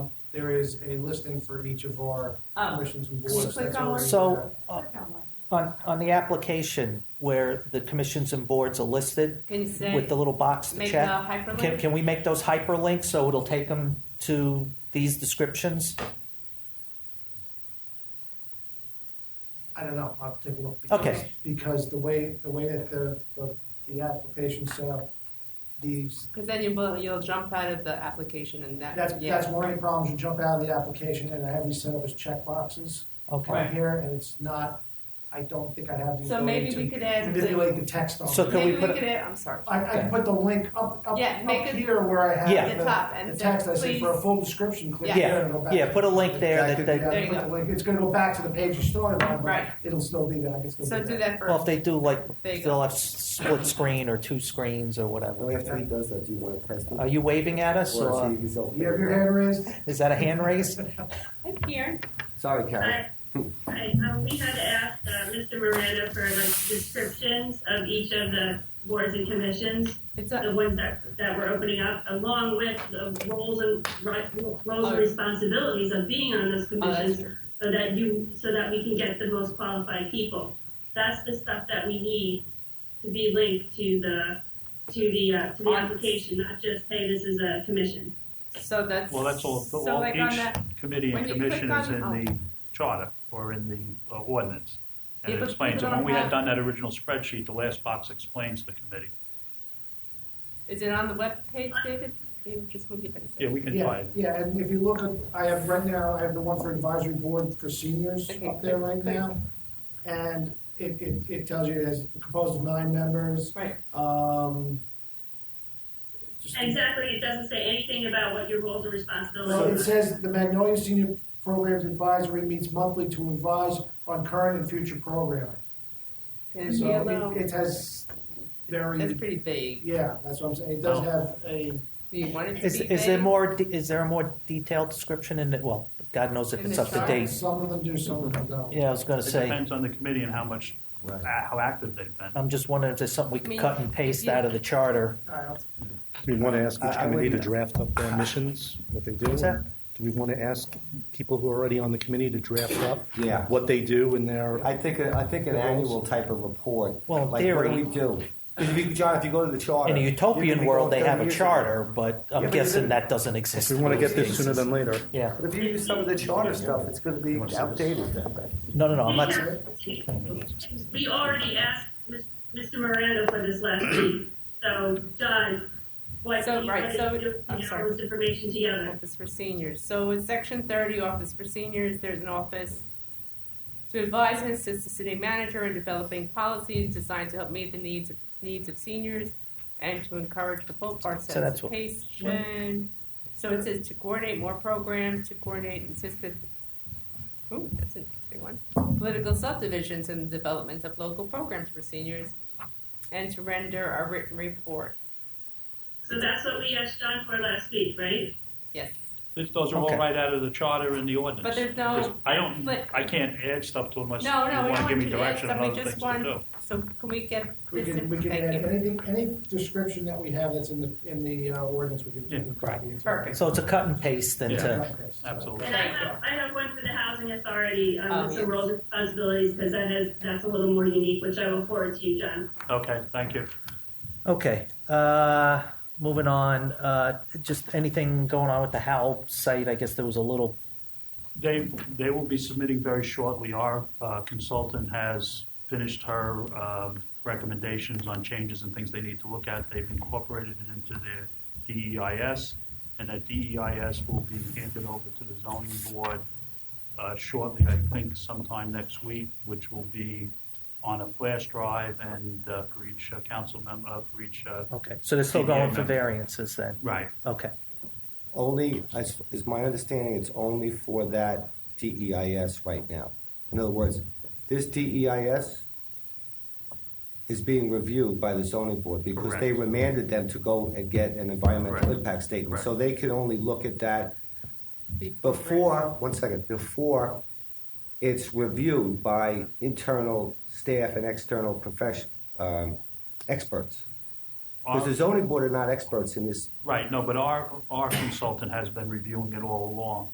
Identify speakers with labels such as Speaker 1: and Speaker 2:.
Speaker 1: there is a listing for each of our
Speaker 2: Oh,
Speaker 1: commissions and
Speaker 2: Just
Speaker 1: boards.
Speaker 2: click
Speaker 1: that's
Speaker 2: on one.
Speaker 1: already there.
Speaker 3: So uh,
Speaker 2: click on one.
Speaker 3: on, on the application where the commissions and boards are listed
Speaker 2: Can you say,
Speaker 3: with the little box to
Speaker 2: make
Speaker 3: check,
Speaker 2: a
Speaker 3: Can,
Speaker 2: hyperlink?
Speaker 3: can we make those hyperlinks so it'll take them to these descriptions?
Speaker 1: I don't know, I'll take a look. because-
Speaker 3: Okay.
Speaker 1: Because the way, the way that the, the, the application's set up, these,
Speaker 2: Because then you will, you'll jump out of the application and that,
Speaker 1: that's,
Speaker 2: yeah.
Speaker 1: that's one of the problems, you jump out of the application and I have these set up as checkboxes
Speaker 3: Okay.
Speaker 1: right here, and it's not, I don't think I have the
Speaker 2: So
Speaker 1: ability
Speaker 2: maybe we
Speaker 1: to
Speaker 2: could add, the-
Speaker 1: manipulate the text on.
Speaker 3: So
Speaker 1: it.
Speaker 3: could
Speaker 2: maybe
Speaker 3: we
Speaker 2: we
Speaker 3: put a-
Speaker 2: could add, I'm sorry,
Speaker 1: I, I can put the link up, up,
Speaker 2: Yeah, make
Speaker 1: up
Speaker 2: it-
Speaker 1: here where I
Speaker 3: Yeah.
Speaker 1: have the,
Speaker 2: the top and
Speaker 1: the
Speaker 2: then
Speaker 1: text, I said
Speaker 2: please.
Speaker 1: for a full description, click
Speaker 2: Yeah.
Speaker 1: there and go back.
Speaker 3: Yeah, put a link there that,
Speaker 1: Yeah,
Speaker 3: that
Speaker 2: There you
Speaker 1: put the
Speaker 2: go.
Speaker 1: link. It's gonna go back to the page you started on, but
Speaker 2: Right.
Speaker 1: it'll still be there, I can still
Speaker 2: So do that
Speaker 3: well, if
Speaker 2: first.
Speaker 3: they do like
Speaker 2: There you go.
Speaker 3: they'll have s- split screen or two screens or
Speaker 4: Well,
Speaker 3: whatever.
Speaker 4: after he does that, do you want to test it?
Speaker 3: Are you waving at us
Speaker 4: Or see
Speaker 3: or
Speaker 4: if he's okay
Speaker 1: You have
Speaker 4: with
Speaker 1: your
Speaker 4: that?
Speaker 1: hand raised?
Speaker 3: is that a hand raise?
Speaker 2: Hi, Karen.
Speaker 4: Sorry, Karen.
Speaker 5: Hi, hi. Um, we had asked uh, Mr. Miranda for like descriptions of each of the boards and commissions,
Speaker 2: It's
Speaker 5: the
Speaker 2: a,
Speaker 5: ones that, that were opening up, along with the roles and ri- roles
Speaker 2: Oh.
Speaker 5: and responsibilities of being on those
Speaker 2: oh, that's
Speaker 5: commissions,
Speaker 2: true.
Speaker 5: so that you, so that we can get the most qualified people. That's the stuff that we need to be linked to the, to the, uh, to the
Speaker 2: On-
Speaker 5: application, not just, hey, this is a commission.
Speaker 2: So that's.
Speaker 6: Well, that's all,
Speaker 2: So
Speaker 6: all
Speaker 2: like on
Speaker 6: each
Speaker 2: that,
Speaker 6: committee
Speaker 2: when
Speaker 6: and
Speaker 2: you click
Speaker 6: commission is
Speaker 2: on-
Speaker 6: in
Speaker 2: oh.
Speaker 6: the charter or in the uh, ordinance. And
Speaker 2: Yeah,
Speaker 6: it
Speaker 2: but
Speaker 6: explains,
Speaker 2: people don't
Speaker 6: and when we had
Speaker 2: have-
Speaker 6: done that original spreadsheet, the last box explains the committee.
Speaker 2: is it on the webpage, David? You just move your face.
Speaker 6: Yeah, we can try
Speaker 1: Yeah,
Speaker 6: it.
Speaker 1: yeah, and if you look at, I have right now, I have the one for advisory board for seniors
Speaker 2: Okay,
Speaker 1: up there right
Speaker 2: click.
Speaker 1: now. And it, it, it tells you it's composed of nine members,
Speaker 2: Right.
Speaker 1: um. just-
Speaker 5: Exactly, it doesn't say anything about what your roles and responsibilities
Speaker 1: Well,
Speaker 5: are.
Speaker 1: it says the Magnolia Senior Programs Advisory meets monthly to advise on current and future programming.
Speaker 2: Can it be a
Speaker 1: So
Speaker 2: little,
Speaker 1: it, it has
Speaker 2: that's
Speaker 1: very,
Speaker 2: pretty vague.
Speaker 1: yeah, that's what I'm saying, it does
Speaker 6: Oh.
Speaker 1: have a,
Speaker 2: Do you want it to be
Speaker 3: Is,
Speaker 2: vague?
Speaker 3: is there more? de- Is there a more detailed description in it? Well, God knows if
Speaker 2: In
Speaker 3: it's
Speaker 2: the
Speaker 3: up to
Speaker 2: chart?
Speaker 3: date.
Speaker 1: some of them do, some of them don't.
Speaker 3: Yeah, I was going
Speaker 6: It
Speaker 3: to say.
Speaker 6: depends on the committee and how much,
Speaker 4: Right.
Speaker 6: how active they've been.
Speaker 3: I'm just wondering if there's something we
Speaker 2: I
Speaker 3: could
Speaker 2: mean,
Speaker 3: cut and paste
Speaker 2: yeah.
Speaker 3: out of the charter.
Speaker 1: I'll-
Speaker 7: Do we want to ask
Speaker 4: Uh, I-
Speaker 7: each
Speaker 4: I
Speaker 7: committee to
Speaker 4: wouldn't-
Speaker 7: draft up their missions, what they do?
Speaker 3: What's that?
Speaker 7: Do we want to ask people who are already on the committee to draft up
Speaker 4: Yeah.
Speaker 7: what they do in their?
Speaker 4: I think, a- I think an annual type of report.
Speaker 3: Well, in
Speaker 4: like, What do
Speaker 3: theory-
Speaker 4: we do? 'Cause if you, John, if you go to the charter.
Speaker 3: In a
Speaker 4: you
Speaker 3: utopian
Speaker 4: can
Speaker 3: world,
Speaker 4: go
Speaker 3: they have a
Speaker 4: 30 years
Speaker 3: charter, but I'm
Speaker 4: Yeah, but
Speaker 3: guessing
Speaker 4: even-
Speaker 3: that doesn't exist.
Speaker 7: If we want to
Speaker 3: in
Speaker 7: get
Speaker 3: most
Speaker 7: this sooner
Speaker 3: cases.
Speaker 7: than later.
Speaker 3: Yeah.
Speaker 4: ago. But if you use some of the charter stuff, it's gonna be outdated then.
Speaker 3: No, no, no. I'm not.
Speaker 5: We already asked Mis- Mr. Miranda for this last week, so John, what
Speaker 2: So,
Speaker 5: do you
Speaker 2: right,
Speaker 5: want
Speaker 2: so-
Speaker 5: to do
Speaker 2: I'm
Speaker 5: to get
Speaker 2: sorry.
Speaker 5: all this information together?
Speaker 2: Office for seniors. So in section thirty, office for seniors, there's an office to advise and assist the city manager in developing policies designed to help meet the needs of needs of seniors and to encourage the full
Speaker 3: that's what-
Speaker 2: participation. So it says to coordinate more programs, to coordinate and assist the Ooh, that's an interesting one. Political subdivisions and the development of local programs for seniors, and to render a written report.
Speaker 5: So that's what we asked John for last week, right?
Speaker 2: Yes,
Speaker 6: This, those are all
Speaker 3: Okay.
Speaker 6: right out of the charter and the ordinance.
Speaker 2: but there's
Speaker 6: Because
Speaker 2: no.
Speaker 6: I don't,
Speaker 2: but-
Speaker 6: I can't add stuff to unless you
Speaker 2: No, no, we
Speaker 6: want
Speaker 2: don't
Speaker 6: to give
Speaker 2: want
Speaker 6: me
Speaker 2: you to add
Speaker 6: direction on
Speaker 2: stuff. We
Speaker 6: other
Speaker 2: just
Speaker 6: things to
Speaker 2: want-
Speaker 6: do.
Speaker 2: So can we get
Speaker 1: We
Speaker 2: this?
Speaker 1: can, we can
Speaker 2: thank
Speaker 1: add
Speaker 2: you.
Speaker 1: anything, any description that we have that's in the, in the uh, ordinance, we can. we can
Speaker 6: Yeah.
Speaker 1: copy into it.
Speaker 2: Perfect.
Speaker 3: So it's a cut and paste then
Speaker 6: Yeah.
Speaker 3: to
Speaker 1: Okay, so-
Speaker 6: Absolutely.
Speaker 5: And I
Speaker 2: Thank
Speaker 5: have, I have one for the housing authority,
Speaker 2: Oh,
Speaker 5: um, with
Speaker 2: yes.
Speaker 5: some roles and responsibilities, because that is, that's a little more unique, which I will forward to you, John.
Speaker 6: Okay, thank you.
Speaker 3: Okay. Uh, moving on. Uh, just anything going on with the Howl site? I guess there was a little.
Speaker 6: They, they will be submitting very shortly. Our uh, consultant has finished her um, recommendations on changes and things they need to look at. They've incorporated it into their DEIS, and that DEIS will be handed over to the zoning board uh, shortly, I think sometime next week, which will be on a flash drive and uh, for each uh, council member, uh, for each, uh,
Speaker 3: Okay. So they're still
Speaker 6: Yeah,
Speaker 3: going for
Speaker 6: no.
Speaker 3: variances then.
Speaker 6: right,
Speaker 3: Okay.
Speaker 4: Only, as is my understanding, it's only for that DEIS right now. In other words, this DEIS is being reviewed by the zoning board because they
Speaker 6: Correct.
Speaker 4: remanded them to go and get an environmental
Speaker 6: Correct.
Speaker 4: impact statement. So they can only look at that before, one second, before it's reviewed by internal staff and external profession, um, experts. Because the zoning board are not experts in this
Speaker 6: right, no, but our, our consultant has been reviewing it all along.